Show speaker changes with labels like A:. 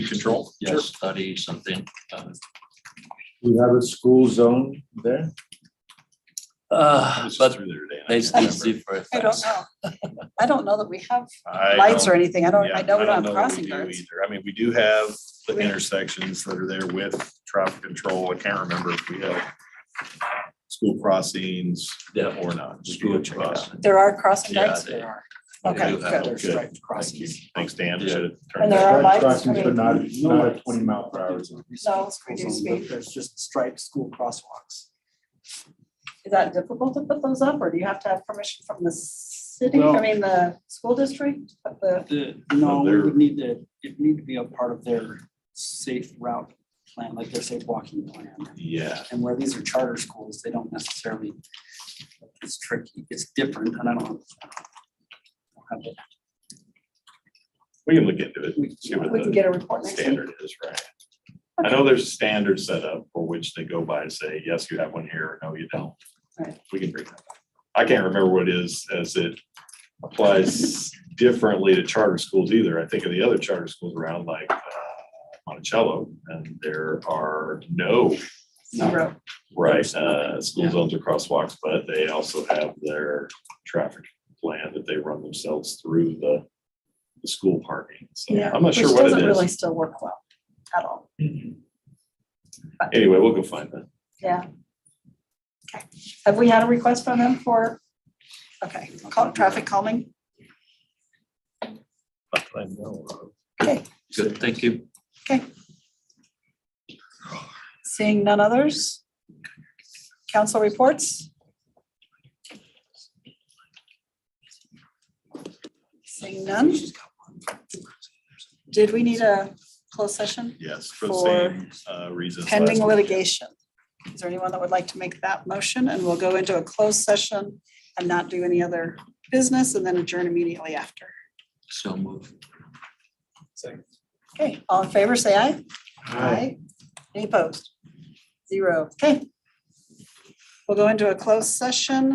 A: control, yeah, study something. uh,
B: You have a school zone there?
A: Uh, but
C: through there today. and I
A: they
C: can't
A: they
C: remember.
A: different
D: I don't
A: things.
D: know. I don't know that we have
C: I
D: lights or
C: don't-
D: anything. I don't,
C: yeah,
D: I know we don't have
C: that
D: crossing
C: do
D: guards.
C: either. I mean, we do have the
D: We-
C: intersections that are there with traffic control. I can't remember if we have school crossings
A: Yeah.
C: or not. We do
A: School
C: have crossing.
A: crossing.
D: There are crossing
A: Yeah,
D: guards?
A: they-
D: There are.
A: they
D: Okay,
A: do have-
D: good.
C: Good.
D: Striped
C: Thank you.
D: crossings.
C: Thanks, Dan.
A: Yeah.
C: Should have turned
D: And there
C: that-
D: are lights.
B: Crossings,
D: I
B: but
D: mean-
B: not, not at twenty mile per hour. zone.
D: No, it's reduced speed.
E: There's just striped school crosswalks.
D: Is that difficult to put those up or do you have to have permission from the city? I
E: Well-
D: mean, the school district? But the-
E: The, no, we
C: they're-
E: would need to, it need to be a part of their safe route plan, like their safe walking plan.
C: Yeah,
E: And where these are charter schools, they don't necessarily, it's tricky, it's different, and I don't. I don't have the-
C: we can look into it.
E: we-
C: See what
D: We can
C: the
D: get a report next week.
C: standard is, right? I know there's a standard set up for which they go by and say, yes, you have one here, or no, you don't.
D: Right.
C: We can bring that up. I can't remember what it is as it applies differently to charter schools either. I think of the other charter schools around like uh, Monticello, and there are no
D: Zero.
C: Right, uh, school zones or crosswalks, but they also have their traffic plan that they run themselves through the. The school parking, so
D: Yeah,
C: I'm not sure
D: Which
C: what
D: doesn't
C: it
D: really
C: is.
D: still work well at all.
C: Anyway, we'll go find that.
D: Yeah. Okay. Have we had a request from them for, okay, cal- traffic calming?
C: I know of.
D: Okay,
A: Good, thank you.
D: seeing none others? Council reports? Seeing none? Did we need a closed session
C: Yes, for the
D: For
C: same uh, reasons.
D: pending
C: last-
D: litigation? Is there anyone that would like to make that motion? And we'll go into a closed session and not do any other business and then adjourn immediately after.
A: So move.
D: Okay, all in favor, say aye. Aye. Any opposed? Zero. Okay. We'll go into a closed session.